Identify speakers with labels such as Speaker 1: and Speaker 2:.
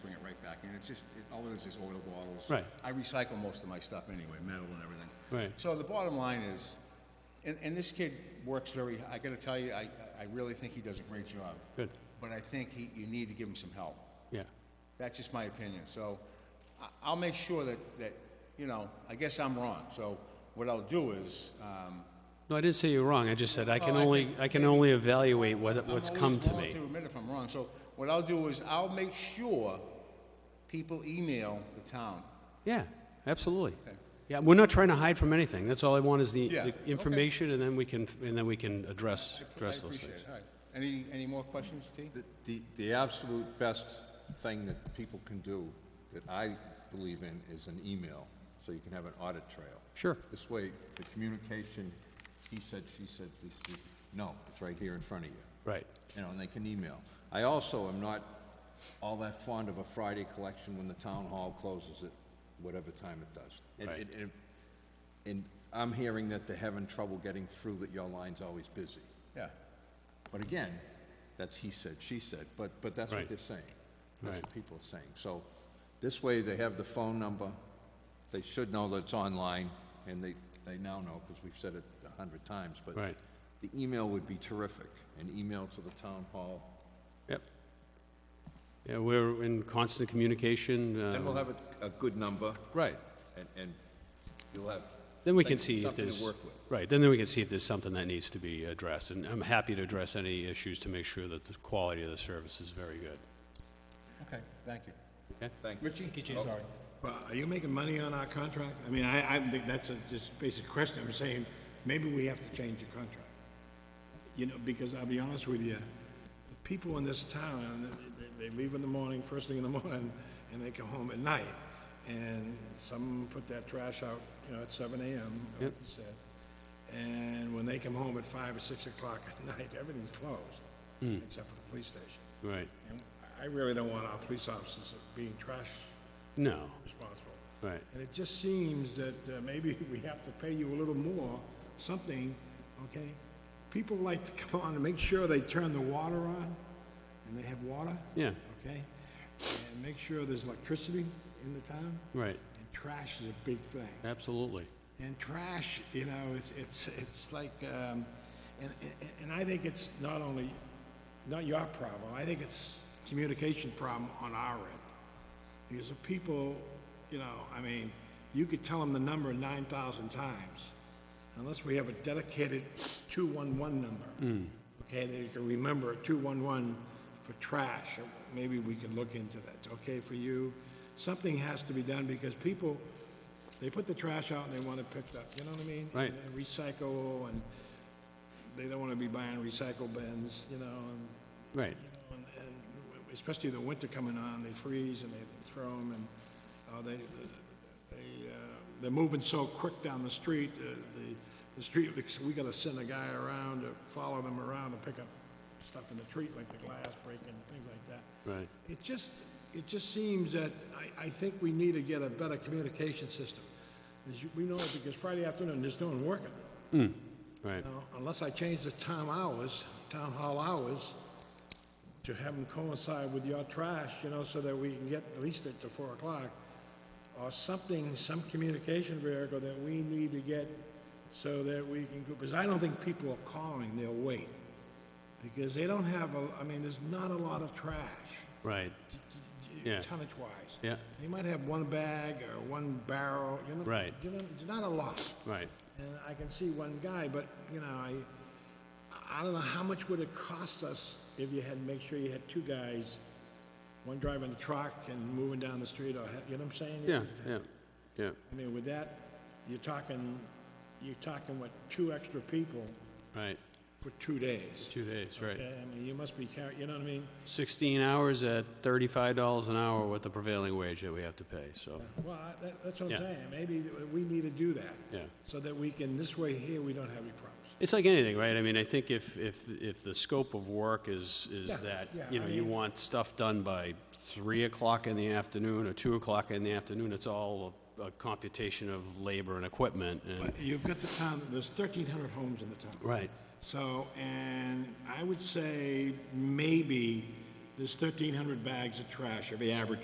Speaker 1: It's just, it, all it is is oil bottles.
Speaker 2: Right.
Speaker 1: I recycle most of my stuff anyway, metal and everything.
Speaker 2: Right.
Speaker 1: So the bottom line is, and, and this kid works very, I gotta tell you, I, I really think he does a great job.
Speaker 2: Good.
Speaker 1: But I think he, you need to give him some help.
Speaker 2: Yeah,
Speaker 1: That's just my opinion. So I, I'll make sure that, that, you know, I guess I'm wrong. So what I'll do is, um,
Speaker 2: no, I didn't say you were wrong, I just said I can
Speaker 1: Well, Oh, I
Speaker 2: only,
Speaker 1: think
Speaker 2: I can
Speaker 1: maybe-
Speaker 2: only evaluate what,
Speaker 1: I'm
Speaker 2: what's
Speaker 1: always
Speaker 2: come to
Speaker 1: willing
Speaker 2: me.
Speaker 1: To admit if I'm wrong. So what I'll do is I'll make sure people email the town.
Speaker 2: Yeah, absolutely. Yeah, we're not trying to hide from anything, that's all I want is the,
Speaker 1: Yeah,
Speaker 2: the
Speaker 1: okay.
Speaker 2: information, and then we can, and then we can address, address
Speaker 1: I
Speaker 2: those
Speaker 1: appreciate
Speaker 2: things.
Speaker 1: it. All right. Any, any more questions, T?
Speaker 3: The- The, the absolute best thing that people can do, that I believe in, is an email, so you can have an audit trail.
Speaker 2: Sure.
Speaker 3: This way, the communication, he said, she said, he said, no, it's right here in front of you.
Speaker 2: Right,
Speaker 3: You know, and they can email. I also am not all that fond of a Friday collection when the town hall closes at whatever time it does. And-
Speaker 2: Right.
Speaker 3: and- and- And I'm hearing that they're having trouble getting through, that your line's always busy.
Speaker 1: Yeah.
Speaker 3: But again, that's he said, she said, but, but that's
Speaker 2: Right.
Speaker 3: what they're saying. That's
Speaker 2: Right.
Speaker 3: what people are saying. So this way, they have the phone number, they should know that it's online, and they, they now know, because we've said it a hundred times, but
Speaker 2: Right.
Speaker 3: the email would be terrific, an email to the town hall,
Speaker 2: yep. Yeah, we're in constant communication,
Speaker 3: then we'll
Speaker 2: uh,
Speaker 3: have a, a good number,
Speaker 2: right,
Speaker 3: and, and you'll have.
Speaker 2: then we can
Speaker 3: things-
Speaker 2: see if
Speaker 3: something to
Speaker 2: there's,
Speaker 3: work with.
Speaker 2: right, then we can see if there's something that needs to be addressed, and I'm happy to address any issues to make sure that the quality of the service is very good.
Speaker 1: Okay, thank you.
Speaker 3: Thank you.
Speaker 1: Richie? I'm sorry.
Speaker 4: Well, are you making money on our contract? I mean, I, I think that's a just basic question. I'm saying, maybe we have to change the contract. You know, because I'll be honest with you, the people in this town, they, they leave in the morning, first thing in the morning, and they come home at night. And some put that trash out, you know, at seven AM, like you said. And when they come home at five or six o'clock at night, everything's closed, except for the police station.
Speaker 2: Right,
Speaker 4: And I really don't want our police officers being trash
Speaker 2: no,
Speaker 4: responsible.
Speaker 2: right.
Speaker 4: And it just seems that uh, maybe we have to pay you a little more, something, okay? People like to come on and make sure they turn the water on, and they have water,
Speaker 2: Yeah,
Speaker 4: okay? And make sure there's electricity in the town,
Speaker 2: right,
Speaker 4: and trash is a big thing.
Speaker 2: absolutely.
Speaker 4: And trash, you know, it's, it's, it's like, um, and, and- and I think it's not only, not your problem, I think it's communication problem on our end. Because the people, you know, I mean, you could tell them the number nine thousand times, unless we have a dedicated two-one-one number. Okay, they can remember two-one-one for trash, or maybe we can look into that, okay, for you. Something has to be done, because people, they put the trash out and they want it picked up, you know what I mean?
Speaker 2: Right.
Speaker 4: And they recycle, and they don't wanna be buying recycle bins, you know, and
Speaker 2: Right,
Speaker 4: you know, and- and especially the winter coming on, they freeze and they throw them, and uh, they, they, uh, they're moving so quick down the street, uh, the, the street, we gotta send a guy around to follow them around and pick up stuff in the street, like the glass breaking, and things like that.
Speaker 2: right,
Speaker 4: It just, it just seems that, I, I think we need to get a better communication system. As you, we know, because Friday afternoon, there's no one working.
Speaker 2: right,
Speaker 4: Now, unless I change the town hours, town hall hours, to have them coincide with your trash, you know, so that we can get at least it to four o'clock, or something, some communication vehicle that we need to get so that we can, go because I don't think people are calling, they'll wait. Because they don't have, a. I mean, there's not a lot of trash,
Speaker 2: right, Yeah.
Speaker 4: tonnage-wise.
Speaker 2: Yeah.
Speaker 4: They might have one bag or one barrel, you know?
Speaker 2: Right.
Speaker 4: You know, it's not a lot.
Speaker 2: right.
Speaker 4: And Uh, I can see one guy, but, you know, I, I don't know, how much would it cost us if you had, to make sure you had two guys, one driving the truck and moving down the street, or, ha- you know what I'm saying?
Speaker 2: Yeah, yeah, yeah,
Speaker 4: I mean, with that, you're talking, you're talking, what, two extra people
Speaker 2: right.
Speaker 4: for two days?
Speaker 2: Two days, right.
Speaker 4: Okay, I mean, you must be carrying, you know what I mean?
Speaker 2: 16 hours at $35 an hour with the prevailing wage that we have to pay, so,
Speaker 4: Well, I- that, that's what
Speaker 2: Yeah.
Speaker 4: I'm saying, maybe we need to do that.
Speaker 2: Yeah.
Speaker 4: So that we can, this way here, we don't have any problems.
Speaker 2: it's like anything, right? I mean, I think if, if, if the scope of work is,
Speaker 4: Yeah,
Speaker 2: is that,
Speaker 4: yeah,
Speaker 2: you know,
Speaker 4: I
Speaker 2: you
Speaker 4: mean-
Speaker 2: want stuff done by 3 o'clock in the afternoon or 2 o'clock in the afternoon, it's all a a computation of labor and equipment and,
Speaker 4: But you've got the town, there's 1,300 homes in the town.
Speaker 2: right,
Speaker 4: So, and I would say maybe there's 1,300 bags of trash every average